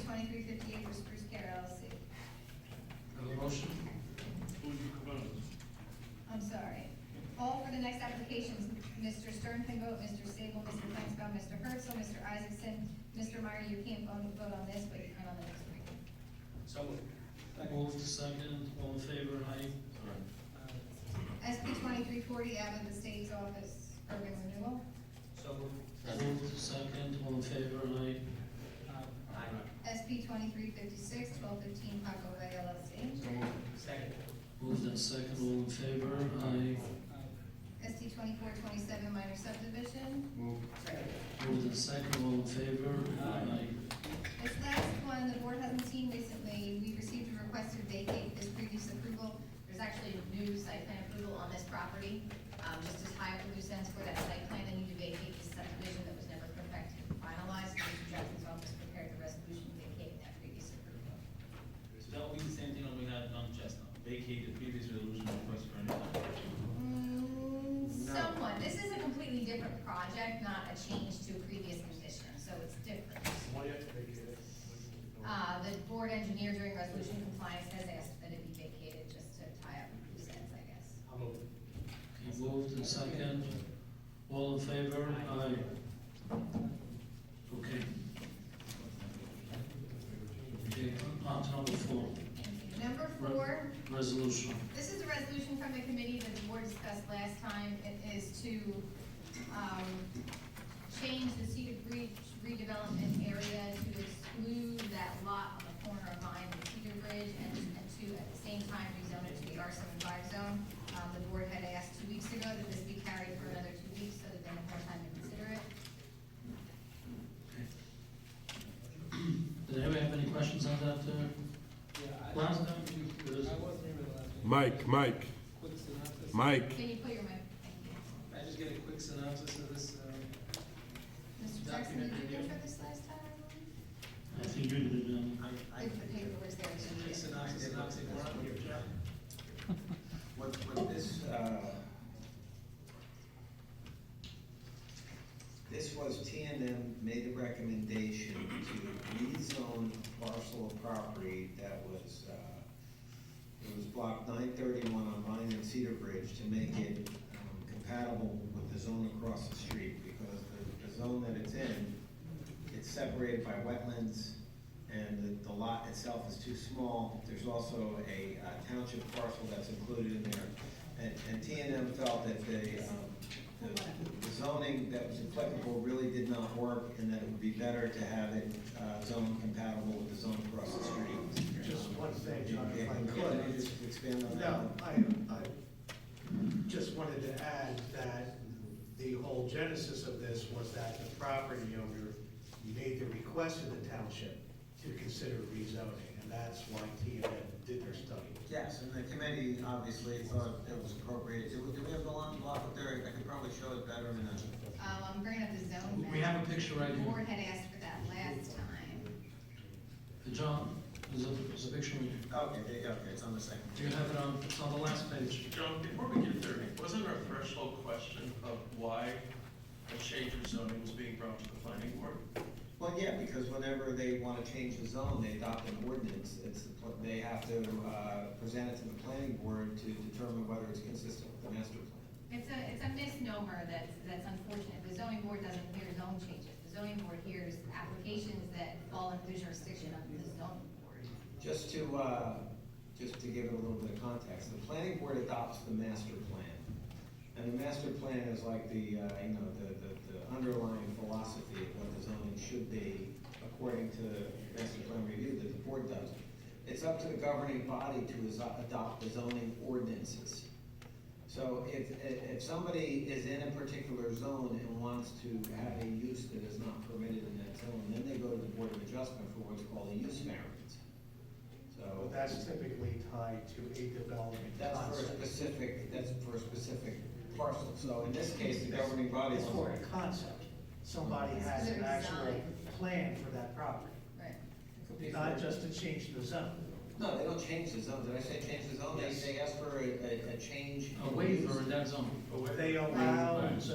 fifty-eight for Spruce Care LLC. Have a motion? Move to close. I'm sorry. All for the next applications, Mr. Sternpingo, Mr. Sable, Mr. Flansbrough, Mr. Herzl, Mr. Isaacson, Mr. Meyer, you can't vote vote on this, but you can on the next one. So moved. Moved second, all in favor, aye. Aye. SP twenty-three forty out of the state's office, urban renewal. So um, moved. Uh, Moved second, all in favor, aye. Aye. SP twenty-three fifty-six, twelve fifteen Paco Bay LLC. So moved. Second. Moved in second, all in favor, aye. SP twenty-four twenty-seven minor subdivision. Move. Moved in second, all in favor, aye. This last one, the board hasn't seen recently, we received a request to vacate this previous approval. There's actually a new site plan approval on this property, um, just as high up a loose ends for that site plan, they need to vacate this subdivision that was never perfected, and finalized. Mr. Jackson's office prepared the resolution vacating that previous approval. So that would be the same thing that we had done just now, vacate the previous resolution request for an application. Mm, Somewhat, this is a completely different project, not a change to a previous position, so it's different. Why do you have to vacate it? Uh, the board engineer during resolution compliance has asked that it be vacated just to tie up loose ends, I guess. I'll move. Okay, moved in second, all in favor, aye. Okay. Okay, on to number four, Number four, resolution. this is a resolution from the committee that the board discussed last time. It is to, um, change the Cedar Bridge redevelopment area to exclude that lot on the corner of Vine and Cedar Bridge and, and to, at the same time, rezone it to the R seventy-five zone. Um, the board had asked two weeks ago that this be carried for another two weeks so that they have more time to consider it. Did anybody have any questions on that, uh, last time? It was- Mike, Mike, Quick synopsis. Mike. Can you put your mic, thank you. I just get a quick synopsis of this, um, Mr. Jackson, did you go for this last time? I think you did, um, If the paper was there, it's quick in synopsis, synopsis, we're on here, Jeff. What, what this, uh, This was T and M made the recommendation to rezone a parcel of property that was, uh, it was block nine thirty-one on Vine and Cedar Bridge to make it um, compatible with the zone across the street, because the, the zone that it's in, it's separated by wetlands, and the, the lot itself is too small. There's also a uh, township parcel that's included in there, and, and T and M felt that they, um, the zoning that was applicable really did not work, and that it would be better to have it uh, zone compatible with the zone across the street. Just one thing, John, if I Yeah, Can you could. just expand on that? No, I, I just wanted to add that the whole genesis of this was that the property owner made the request to the township to consider rezoning, and that's why T and M did their study. Yes, and the committee obviously thought it was appropriate. Do we- do we have the line block up there? I could probably show it better in a, Um, I'm bringing up the zone map. we have a picture right The here. board had asked for that last time. John, there's a, there's a picture, do okay, there you go. okay, it's on the second. you have it on, it's on the last page? John, before we get there, wasn't there a threshold question of why a change of zoning was being brought to the planning board? Well, yeah, because whenever they want to change the zone, they adopt an ordinance. It's, the pl- they have to uh, present it to the planning board to determine whether it's consistent with the master plan. It's a, it's a misnomer that's, that's unfortunate. The zoning board doesn't hear zone changes. The zoning board hears applications that fall under the jurisdiction of the zoning board. Just to, uh, just to give it a little bit of context, the planning board adopts the master plan. And the master plan is like the, uh, you know, the, the, the underlying philosophy of what the zoning should be according to the master plan review that the board does. It's up to the governing body to is- adopt the zoning ordinances. So if, if if somebody is in a particular zone and wants to have a use that is not permitted in that zone, then they go to the board of adjustment for what's called a use variance. But So that's typically tied to a development that's for a concept. specific, that's for a specific parcel. So in this case, the governing body. It's for a concept. Somebody has an actual plan for that property, Right. Could be for- not just to change the zone. No, they don't change the zone. Did I say change the zone? They, Yes. they ask for a, a, a change. A in use. waiver in that zone. They allow, so